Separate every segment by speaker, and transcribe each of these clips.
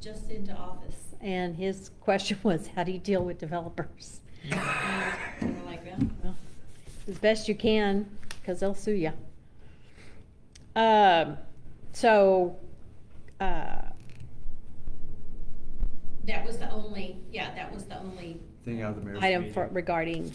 Speaker 1: just into office.
Speaker 2: And his question was, how do you deal with developers?
Speaker 1: And we're like, well,
Speaker 2: Well, As best you can, because they'll sue you. Um, so, uh,
Speaker 1: that was the only, yeah, that was the only,
Speaker 3: Thing out of the mayor's
Speaker 2: item
Speaker 3: meeting.
Speaker 2: for regarding,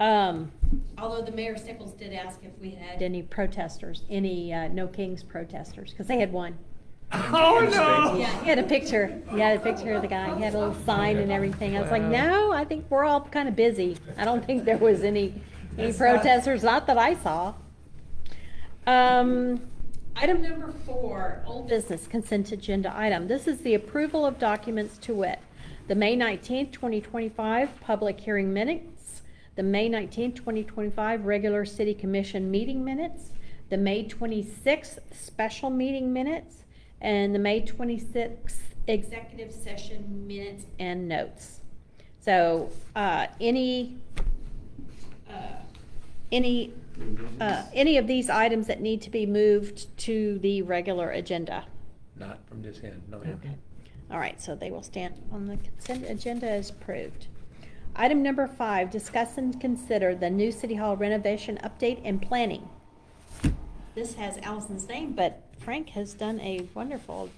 Speaker 2: um,
Speaker 1: although the mayor Staples did ask if we had.
Speaker 2: any protesters, any, uh, No Kings protesters, because they had one.
Speaker 3: Oh, no.
Speaker 1: Yeah.
Speaker 2: He had a picture, he had a picture of the guy, he had a little sign and everything, I was like, no, I think we're all kind of busy. I don't think there was any, any
Speaker 3: That's not-
Speaker 2: protesters, not that I saw. Um,
Speaker 1: Item number four, old business.
Speaker 2: business consent agenda item, this is the approval of documents to wit, the May nineteenth, twenty twenty-five public hearing minutes, the May nineteenth, twenty twenty-five regular city commission meeting minutes, the May twenty-sixth special meeting minutes, and the May twenty-sixth executive
Speaker 1: executive session minutes,
Speaker 2: and notes. So, uh, any,
Speaker 1: uh,
Speaker 2: any, uh, any of these items that need to be moved to the regular agenda?
Speaker 4: Not from this end, no.
Speaker 2: Okay. All right, so they will stand on the consent agenda as approved. Item number five, discuss and consider the new City Hall renovation update and planning. This has Allison's name, but Frank has done a wonderful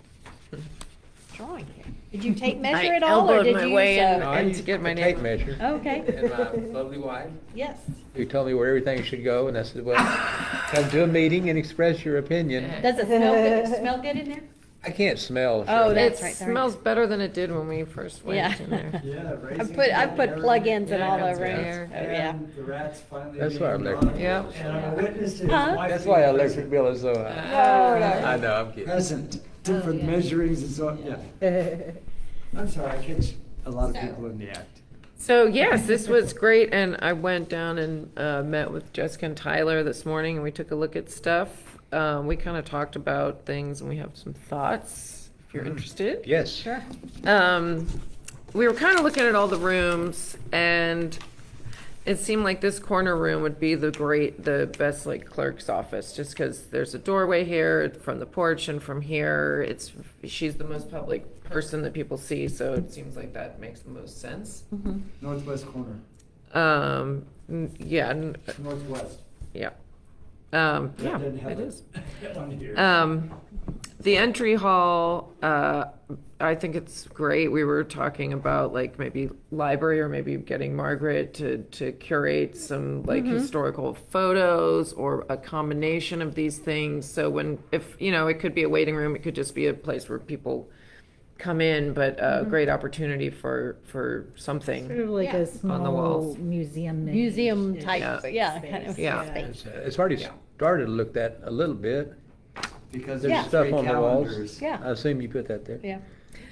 Speaker 2: drawing here. Did you tape measure
Speaker 5: I
Speaker 2: it all, or
Speaker 5: elbowed
Speaker 2: did you?
Speaker 5: my way in.
Speaker 2: uh,
Speaker 4: No, I
Speaker 5: And to
Speaker 4: used
Speaker 5: get my
Speaker 4: a tape
Speaker 5: neighbor.
Speaker 4: measure.
Speaker 3: Oh.
Speaker 2: Okay. Oh,
Speaker 4: And my lovely wife,
Speaker 2: Yes,
Speaker 4: who told me where everything should go, and I said, well, come to a meeting and express your opinion.
Speaker 5: Yeah.
Speaker 2: does it smell good, smell good in there?
Speaker 4: I can't smell. so-
Speaker 2: Oh,
Speaker 5: It
Speaker 2: that's right. sorry.
Speaker 5: smells better than it did when we first
Speaker 2: Yeah.
Speaker 5: went in there.
Speaker 3: Yeah,
Speaker 2: I
Speaker 3: raisins
Speaker 2: put, I
Speaker 3: and
Speaker 2: put
Speaker 3: everything.
Speaker 2: plug-ins and
Speaker 5: Yeah,
Speaker 2: all
Speaker 5: that's
Speaker 2: over it,
Speaker 5: fair.
Speaker 2: oh, yeah.
Speaker 3: And the rats finally.
Speaker 4: That's why I'm
Speaker 3: leaving
Speaker 4: like-
Speaker 3: on.
Speaker 5: Yep.
Speaker 3: And I'm a witness to his
Speaker 2: Huh?
Speaker 3: wife
Speaker 4: That's why
Speaker 3: being
Speaker 4: our electric bill is so high.
Speaker 3: Uh,
Speaker 2: No, no.
Speaker 4: I know, I'm kidding.
Speaker 3: Present,
Speaker 2: Oh,
Speaker 3: different measurings and so, yeah. I'm sorry, I catch a lot of
Speaker 1: So-
Speaker 3: people in the act.
Speaker 5: So yes, this was great, and I went down and uh, met with Jessica and Tyler this morning, and we took a look at stuff. Um, we kind of talked about things, and we have some thoughts. If
Speaker 3: Mm-hmm.
Speaker 5: you're interested,
Speaker 4: Yes.
Speaker 2: Sure.
Speaker 5: um, we were kind of looking at all the rooms and it seemed like this corner room would be the great, the best like clerk's office, just because there's a doorway here from the porch and from here, it's, she's the most public person that people see, so it seems like that makes the most sense.
Speaker 2: Mm-hmm.
Speaker 3: Northwest corner,
Speaker 5: Um, n- yeah, n-
Speaker 3: northwest.
Speaker 5: yeah. Um,
Speaker 3: That
Speaker 5: yeah,
Speaker 3: didn't have
Speaker 5: it is.
Speaker 3: On here.
Speaker 5: Um, the entry hall, uh, I think it's great. We were talking about like maybe library or maybe getting Margaret to, to curate some like
Speaker 6: Mm-hmm.
Speaker 5: historical photos or a combination of these things. So when, if, you know, it could be a waiting room, it could just be a place where people come in, but a great opportunity for, for
Speaker 6: Mm-hmm. Sort
Speaker 5: something.
Speaker 6: of like
Speaker 2: Yeah.
Speaker 6: a
Speaker 5: On the
Speaker 6: small
Speaker 5: walls.
Speaker 6: museum.
Speaker 2: Museum type,
Speaker 5: Yeah.
Speaker 2: yeah, kind of
Speaker 5: Yeah.
Speaker 2: space.
Speaker 4: It's, uh, It's already started to look that a little bit.
Speaker 3: Because
Speaker 2: Yeah.
Speaker 3: there's
Speaker 4: Stuff
Speaker 3: three
Speaker 4: on the walls.
Speaker 3: calendars.
Speaker 2: Yeah.
Speaker 4: I assume you put that there.
Speaker 2: Yeah.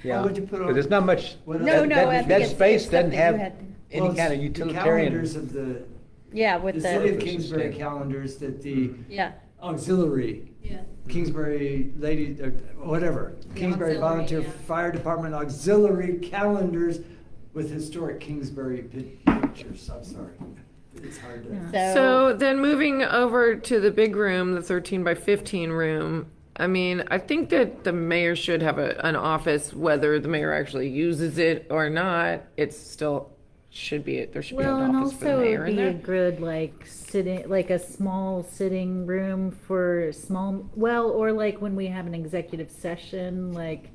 Speaker 4: Yeah.
Speaker 3: would you put on-
Speaker 4: But there's not much,
Speaker 3: What
Speaker 2: No,
Speaker 3: else?
Speaker 4: that,
Speaker 2: no, I
Speaker 4: that,
Speaker 2: think
Speaker 4: that
Speaker 2: it's- it's
Speaker 4: space
Speaker 2: stuff
Speaker 4: doesn't
Speaker 2: that you
Speaker 4: have
Speaker 2: had.
Speaker 3: Well,
Speaker 4: any
Speaker 3: it's
Speaker 4: kind of
Speaker 3: The calendars
Speaker 4: utilitarian.
Speaker 3: of the,
Speaker 2: Yeah,
Speaker 3: the
Speaker 2: with
Speaker 3: city of
Speaker 2: the, Mm-hmm.
Speaker 4: Purpose
Speaker 3: Kingsbury
Speaker 4: statement.
Speaker 3: calendars that the
Speaker 2: yeah,
Speaker 3: auxiliary,
Speaker 1: yeah.
Speaker 3: Kingsbury lady, or whatever,
Speaker 1: The
Speaker 3: Kingsbury
Speaker 1: auxiliary,
Speaker 3: Volunteer
Speaker 1: yeah.
Speaker 3: Fire Department auxiliary calendars with historic Kingsbury pi- pictures, I'm sorry. It's hard to.
Speaker 6: Yeah.
Speaker 5: So then moving over to the big room, the 13 by 15 room, I mean, I think that the mayor should have a, an office, whether the mayor actually uses it or not, it's still, should be, there should be
Speaker 6: Well,
Speaker 5: an
Speaker 6: and
Speaker 5: office for the
Speaker 6: also
Speaker 5: mayor
Speaker 6: it'd
Speaker 5: in
Speaker 6: be a
Speaker 5: there.
Speaker 6: good like sitting, like a small sitting room for small, well, or like when we have an executive session, like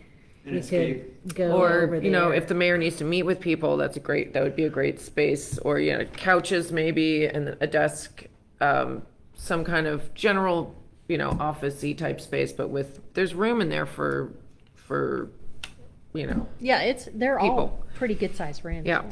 Speaker 3: An
Speaker 6: we
Speaker 3: escape.
Speaker 6: could go over
Speaker 5: Or, you know,
Speaker 6: there.
Speaker 5: if the mayor needs to meet with people, that's a great, that would be a great space, or, you know, couches maybe, and a desk, um, some kind of general, you know, office-y type space, but with, there's room in there for, for, you know,
Speaker 2: yeah, it's, they're all
Speaker 5: People.
Speaker 2: pretty good sized rooms.
Speaker 5: Yeah.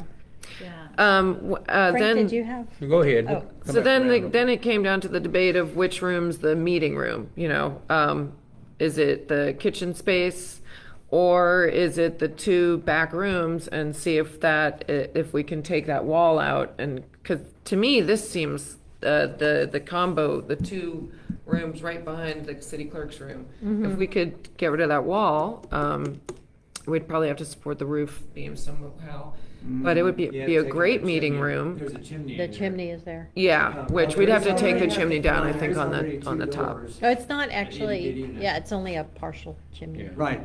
Speaker 6: Yeah.
Speaker 5: Um, w- uh,
Speaker 2: Frank,
Speaker 5: then,
Speaker 2: did you have?
Speaker 4: Go ahead.
Speaker 2: Oh.
Speaker 4: Come
Speaker 5: so
Speaker 4: back
Speaker 5: then,
Speaker 4: around.
Speaker 5: the, then it came down to the debate of which room's the meeting room, you know? Um, is it the kitchen space or is it the two back rooms and see if that, i- if we can take that wall out and, cause to me, this seems, uh, the, the combo, the two rooms right behind the city clerk's room.
Speaker 2: Mm-hmm.
Speaker 5: If we could get rid of that wall, um, we'd probably have to support the roof beam somehow. But it would be,
Speaker 3: Mm, Yeah,
Speaker 5: be a
Speaker 3: take
Speaker 5: great
Speaker 3: the
Speaker 5: meeting
Speaker 3: chimney.
Speaker 5: room.
Speaker 3: There's a chimney.
Speaker 2: The
Speaker 3: in there.
Speaker 2: chimney is there.
Speaker 5: Yeah,
Speaker 3: Uh,
Speaker 5: which we'd have to
Speaker 3: there's
Speaker 5: take the
Speaker 3: already-
Speaker 5: chimney down, I
Speaker 3: there's
Speaker 5: think, on
Speaker 3: already
Speaker 5: the, on
Speaker 3: two
Speaker 5: the top.
Speaker 3: doors.
Speaker 2: No, it's not
Speaker 3: itty
Speaker 2: actually,
Speaker 3: bitty, no.
Speaker 2: yeah, it's only a partial chimney.
Speaker 3: Right,